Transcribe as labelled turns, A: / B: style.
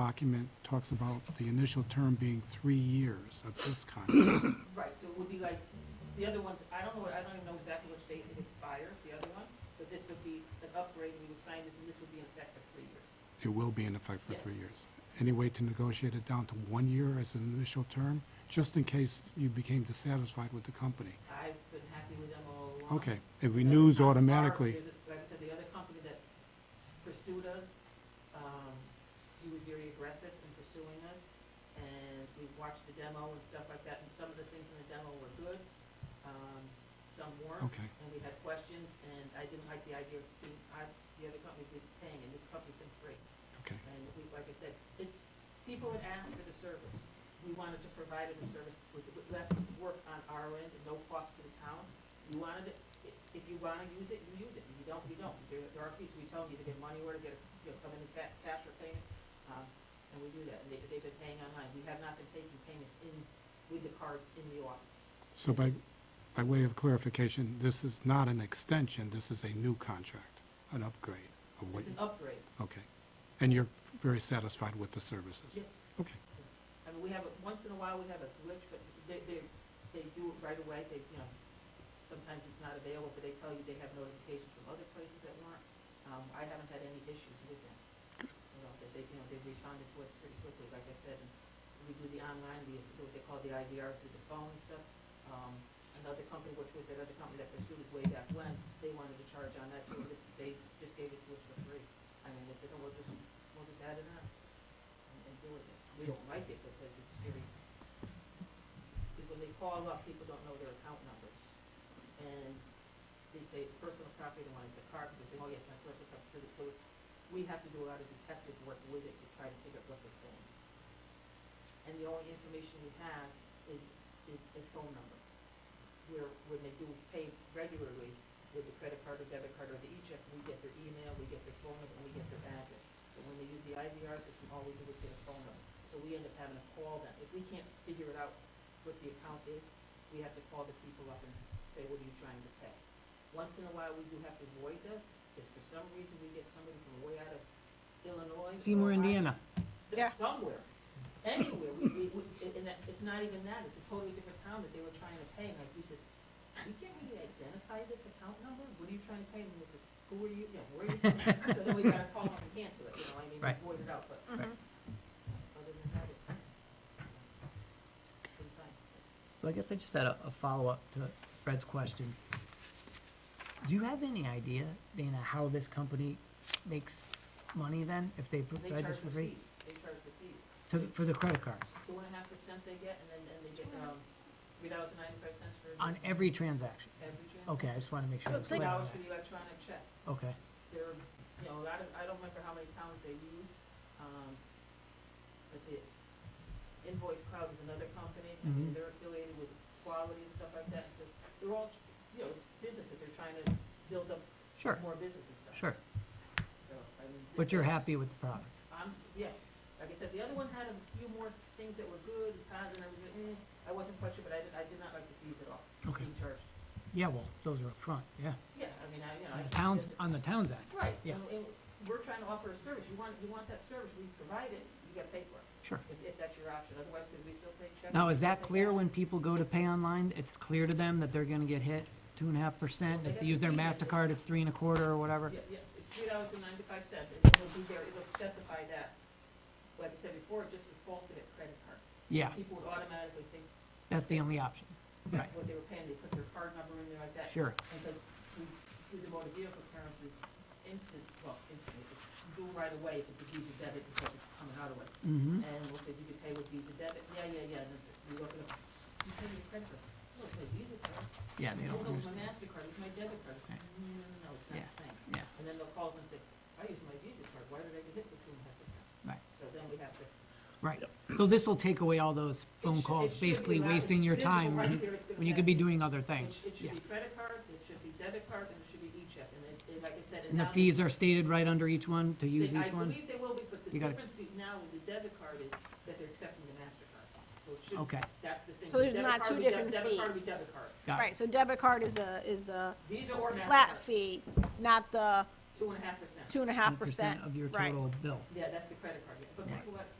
A: document talks about the initial term being three years of this contract.
B: Right, so it would be like, the other ones, I don't know, what- I don't even know exactly which date it expires, the other one, but this would be an upgrade, we would sign this, and this would be in effect for three years.
A: It will be in effect for three years. Any way to negotiate it down to one year as an initial term, just in case you became dissatisfied with the company?
B: I've been happy with them all along.
A: Okay, it renews
B: Other times are-
A: automatically.
B: there's a- Like I said, the other company that pursued us, um, he was very aggressive in pursuing us, and we watched the demo and stuff like that, and some of the things in the demo were good, um, some weren't.
A: Okay,
B: and we had questions, and I didn't like the idea of being, I, the other company did paying, and this company's been free.
A: okay,
B: And we, like I said, it's, people had asked for the service. We wanted to provide them a service with, with less work on our end, and no cost to the town. You wanted it, i- if you wanna use it, you use it, if you don't, you don't. There there are people, we tell them you to get money order, get, a you know, come in ca- cash or payment, um, and we do that, and they, they've been paying online. We have not been taking payments in, with the cards in the office.
A: so by, by way of clarification, this is not an extension, this is a new contract, an upgrade of what,
B: It's an upgrade,
A: okay. And you're very satisfied with the services?
B: yes.
A: Okay,
B: I mean, we have, a- once in a while, we have a glitch, but they, they, they do it right away, they, you know, sometimes it's not available, but they tell you they have notifications from other places that weren't. Um, I haven't had any issues with them. You know, that they, you know, they responded to it pretty quickly, like I said, and we do the online, we do what they call the IVR through the phone and stuff. Um, another company, which was that other company that pursued us way back when, they wanted to charge on that too, this, they just gave it to us for free. I mean, they said, oh, we'll just, we'll just add it on and and deal with it. We don't like it because it's very, because when they call up, people don't know their account numbers. And they say it's personal property, they want it's a car, because they say, oh, yes, my personal property, so, so it's, we have to do a lot of detective work with it to try to figure out what they're paying. And the only information we have is, is a phone number. Where, when they do pay regularly with the credit card or debit card or the e-check, we get their email, we get their phone number, and we get their address. But when they use the IVR system, all we do is get a phone number. So we end up having to call them. If we can't figure it out what the account is, we have to call the people up and say, what are you trying to pay? Once in a while, we do have to void this, because for some reason, we get somebody from way out of Illinois. or Ohio,
C: Seymour, Indiana.
B: s-
D: Yeah.
B: somewhere, anywhere, we, we, we, and- and that, it's not even that, it's a totally different town that they were trying to pay, and like, he says, we can't really identify this account number, what are you trying to pay, and this is, who are you, you know, where are you? from?" So then we gotta call them and cancel it, you know, I mean,
C: Right.
B: we void it out, but, other
D: Mhm.
B: than that, it's, um, pretty fine.
C: So I guess I just had a, a follow-up to Fred's questions. Do you have any idea, Dana, how this company makes money then, if they
B: They
C: provide
B: charge
C: this for
B: the
C: free?
B: fees, they charge the fees,
C: To, for the credit cards,
B: two and a half percent they get, and then, and they get, um, three dollars and ninety-five cents for.
C: on every transaction?
B: Every check.
C: Okay, I just wanna make sure. I
D: So
C: was
B: Two
D: think-
C: clear on
B: dollars for
C: that.
B: the electronic check.
C: Okay,
B: there, are, you know, a lot of, I don't remember how many towns they use, um, but the Invoice Cloud is another company, I mean,
C: Mhm.
B: they're affiliated with quality and stuff like that, so they're all, you know, it's business that they're trying to build up
C: sure,
B: more business and stuff.
C: sure,
B: So, I mean.
C: but you're happy with the product?
B: I'm, yeah, like I said, the other one had a few more things that were good and cons, and I was like, eh, I wasn't quite sure, but I did, I did not like the fees at all.
C: Okay.
B: Being charged,
C: Yeah, well, those are up front. yeah.
B: yeah, I mean, I, you know.
C: On
B: I-
C: the towns, on the towns end,
B: Right,
C: Yeah.
B: and, and we're trying to offer a service, you want, you want that service, we provide it, you gotta pay for it,
C: sure.
B: if, if that's your option, otherwise, could we still take checks?
C: Now, is
B: We'll
C: that
B: take
C: clear
B: cash.
C: when people go to pay online? It's clear to them that they're gonna get hit two and a half percent? If they use their MasterCard, it's three and a quarter or whatever?
B: Yeah, yeah, it's three dollars and ninety-five cents, and it'll be there, it'll specify that, like I said before, it just defaulted at credit card.
C: Yeah,
B: People would automatically think
C: that's the only option. Right,
B: that's what they were paying, they put their card number in there like that.
C: sure.
B: Because we do the motor vehicle clearances instant, well, instantly, it's due right away if it's a Visa debit, because it's coming out of it.
C: Mm-hmm,
B: And we'll say, do you pay with Visa debit? Yeah, yeah, yeah, and that's it, we look it up. You pay with your credit card? No, it's my Visa card.
C: yeah, they
B: Oh, no, it's
C: don't
B: my
C: understand.
B: MasterCard, it's my debit card. It's,
C: Yeah.
B: No, no, no, no, it's not
C: Yeah.
B: the same.
C: Yeah,
B: And then they'll call up and say, I use my Visa card, why did I get hit with two and a half percent?
C: Right.
B: So then we have to.
C: right. So this'll take away all those
B: It
C: phone
B: should- it
C: calls,
B: should be
C: basically
B: allowed- it's
C: wasting your
B: visible
C: time
B: right
C: when you-
B: there, it's gonna
C: when you
B: have-
C: could be doing other
B: It
C: things.
B: sh- it
C: Yeah.
B: should be credit card, it should be debit card, and it should be e-check, and it, it- like I said.
C: And the
B: now they-
C: fees are stated right under each one to use
B: they-
C: each
B: I
C: one?
B: believe they will be, but the
C: You gotta-
B: difference be- now with the debit card is that they're accepting the MasterCard. So it should,
C: Okay,
B: that's the thing.
D: So
B: The
D: there's
B: debit
D: not
B: card
D: two
B: would deb-
D: different
B: Debit card would
D: fees.
B: be debit card.
C: got it.
D: Right, so debit card is a, is a
B: Visa or MasterCard.
D: flat fee, not the
C: Two and a half percent.
E: two and a half percent,
B: Of your
E: right.
B: total bill.
C: Yeah, that's the credit card, yeah. But
B: Right.
C: people have